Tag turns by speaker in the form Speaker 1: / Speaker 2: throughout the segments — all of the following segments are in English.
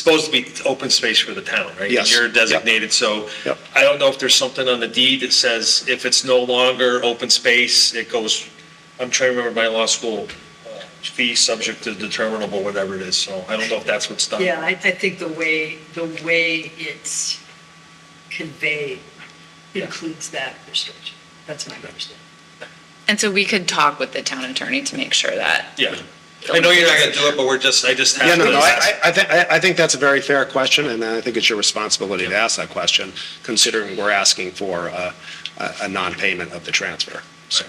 Speaker 1: supposed to be open space for the town, right?
Speaker 2: Yes.
Speaker 1: You're designated, so
Speaker 2: Yep.
Speaker 1: I don't know if there's something on the deed that says if it's no longer open space, it goes, I'm trying to remember my law school uh, fee subject to determinable, whatever it is, so I don't know if that's what's done.
Speaker 3: Yeah, I, I think the way, the way it's conveyed includes that restriction. That's my understanding.
Speaker 4: And so we could talk with the town attorney to make sure that.
Speaker 1: Yeah. I know you're not gonna do it, but we're just, I just have.
Speaker 2: Yeah, no,
Speaker 1: to-
Speaker 2: no, I, I- I think, I I think that's a very fair question, and I think it's your responsibility to ask that question, considering we're asking for uh, a, a non-payment of the transfer, so.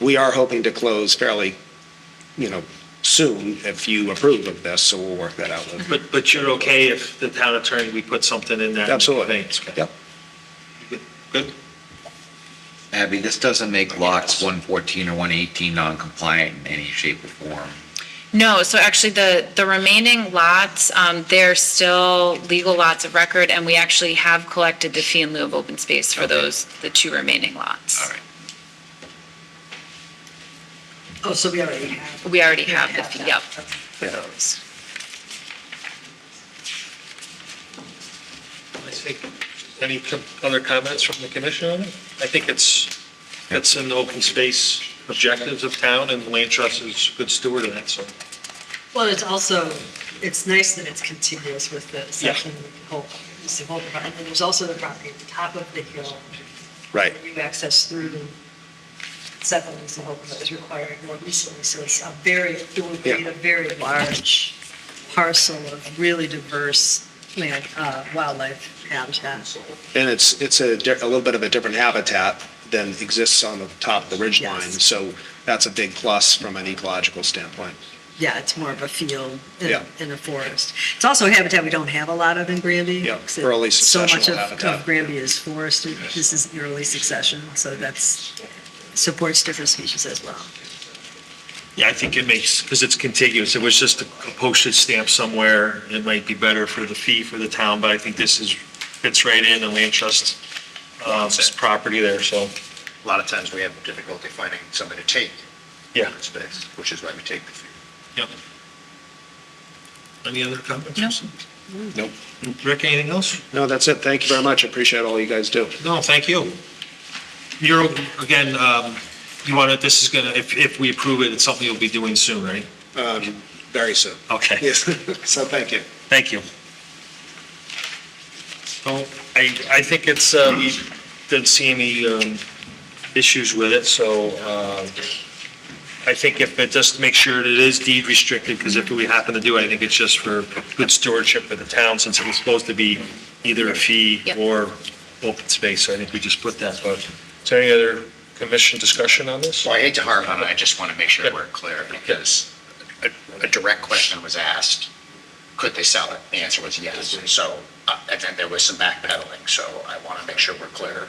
Speaker 2: We are hoping to close fairly, you know, soon, if you approve of this, so we'll work that out with.
Speaker 1: But, but you're okay if the town attorney, we put something in there?
Speaker 2: Absolutely.
Speaker 1: Thanks, okay.
Speaker 2: Yep.
Speaker 1: Good.
Speaker 5: Abby, this doesn't make lots 114 or 118 non-compliant in any shape or form.
Speaker 4: No, so actually the, the remaining lots, um, they're still legal lots of record and we actually have collected the fee in lieu of open space for those, the two remaining lots.
Speaker 5: All right.
Speaker 3: Oh, so we already have.
Speaker 4: We already have the
Speaker 3: that.
Speaker 4: fee, yep.
Speaker 2: Yeah.
Speaker 4: Those.
Speaker 1: I think, any com- other comments from the commission on it? I think it's, it's in the open space objectives of town, and the land trust is a good steward of that, so.
Speaker 3: Well, it's also, it's nice that it's continuous with the section, whole, the whole, and then there's also the property at the top of the hill.
Speaker 2: Right.
Speaker 3: that You access through the settlers and whole, that is required more recently, so it's a very, it would be
Speaker 2: Yeah.
Speaker 3: a very large parcel of really diverse land, uh, wildlife habitat.
Speaker 2: And it's, it's a, di- a little bit of a different habitat than exists on the top of the ridge line,
Speaker 3: Yes.
Speaker 2: so that's a big plus from an ecological standpoint.
Speaker 3: Yeah, it's more of a field in,
Speaker 2: Yeah.
Speaker 3: in a forest. It's also habitat we don't have a lot of in Granby.
Speaker 2: Yeah,
Speaker 3: 'cause it-
Speaker 2: early
Speaker 3: So
Speaker 2: successional
Speaker 3: much of-
Speaker 2: habitat.
Speaker 3: of Granby is forested. This is early succession, so that's, supports different species as well.
Speaker 1: Yeah, I think it makes, because it's contiguous, if it was just a postage stamp somewhere, it might be better for the fee for the town, but I think this is, fits right in the land trust, um, property there, so,
Speaker 6: A lot of times we have difficulty finding somebody to take
Speaker 1: yeah.
Speaker 6: open space, which is why we take the fee.
Speaker 1: Yep. Any other comments?
Speaker 2: Nope.
Speaker 1: Rick, anything else?
Speaker 2: No, that's it. Thank you very much. I Appreciate all you guys do.
Speaker 1: No, thank you. You're, again, um, you want to, this is going to, if, if we approve it, it's something you'll be doing soon, right?
Speaker 2: Very soon.
Speaker 1: Okay,
Speaker 2: Yes, so thank you.
Speaker 1: thank you. So I, I think it's, uh, we didn't see any um, issues with it, so uh, I think if it, just make sure that it is deed restricted, because if we happen to do it, I think it's just for good stewardship for the town, since it was supposed to be either a fee
Speaker 4: Yep.
Speaker 1: or open space, so I think we just put that, but is there any other commission discussion on this?
Speaker 6: So I hate to harp on it, I just want to make sure we're clear, because a, a direct question was asked, could they sell it? The answer was yes, so, uh, and then there was some backpedaling, so I want to make sure we're clear.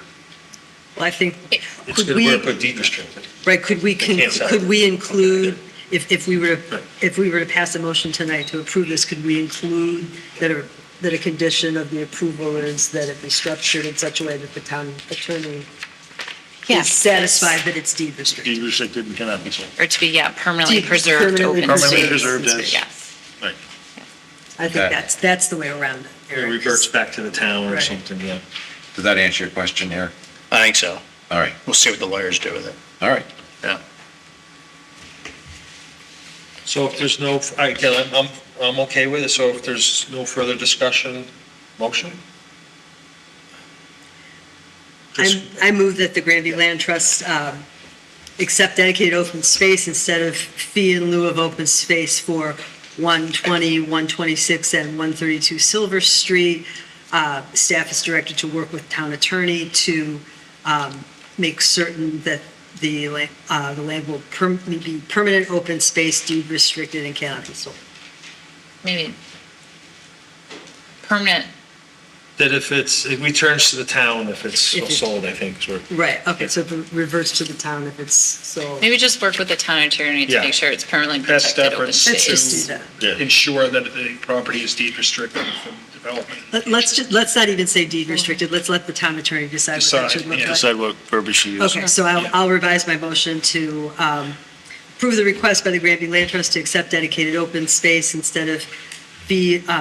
Speaker 3: Well, I think,
Speaker 1: It's
Speaker 3: could
Speaker 1: good work
Speaker 3: we,
Speaker 1: with deed restricted.
Speaker 3: right, could we,
Speaker 1: They can't
Speaker 3: con-
Speaker 1: sell.
Speaker 3: could we include, if, if we were, to
Speaker 1: Right.
Speaker 3: if we were to pass a motion tonight to approve this, could we include that a, that a condition of the approval is that it be structured in such a way that the town attorney is satisfied that it's deed restricted?
Speaker 7: Deed restricted and cannot be sold.
Speaker 4: Or to be, yeah, permanently preserved
Speaker 3: Permanently
Speaker 4: open space.
Speaker 3: Permanently
Speaker 7: preserved as-
Speaker 4: Yes.
Speaker 7: Right.
Speaker 3: I think
Speaker 5: Okay.
Speaker 3: that's, that's the way around it.
Speaker 1: It
Speaker 3: Eric,
Speaker 1: reverts
Speaker 3: is-
Speaker 1: back to the town or
Speaker 3: Right.
Speaker 1: something, yeah.
Speaker 5: Does that answer your question, Eric?
Speaker 7: I think so.
Speaker 5: All right,
Speaker 7: We'll see what the lawyers do with it.
Speaker 5: all right.
Speaker 7: Yeah.
Speaker 1: So if there's no, I, again, I'm- I'm, I'm okay with it, so if there's no further discussion, motion?
Speaker 3: I'm- I move that the Granby Land Trust um, accept dedicated open space instead of fee in lieu of open space for 120, 126, and 132 Silver Street. Uh, Staff is directed to work with town attorney to um, make certain that the la- uh, the land will per- be permanent open space, deed restricted, and cannot be sold.
Speaker 4: Maybe. Permanent,
Speaker 1: That if it's, it returns to the town if it's
Speaker 3: If it-
Speaker 1: sold, I think, is what-
Speaker 3: Right, okay, so it reverts to the town if it's sold.
Speaker 4: maybe just work with the town attorney to
Speaker 1: Yeah.
Speaker 4: make sure it's permanently
Speaker 1: Best
Speaker 4: protected open
Speaker 1: efforts
Speaker 3: Let's
Speaker 4: space.
Speaker 3: just do that.
Speaker 1: ensure that the property is deed restricted from development.
Speaker 3: Let- Let's, ju- let's not even say deed restricted, let's let the town attorney decide what that should look like.
Speaker 7: Decide what verbiage you use.
Speaker 3: Okay, so I'll, I'll revise my motion to um, approve the request by the Granby Land Trust to accept dedicated open space instead of be, uh,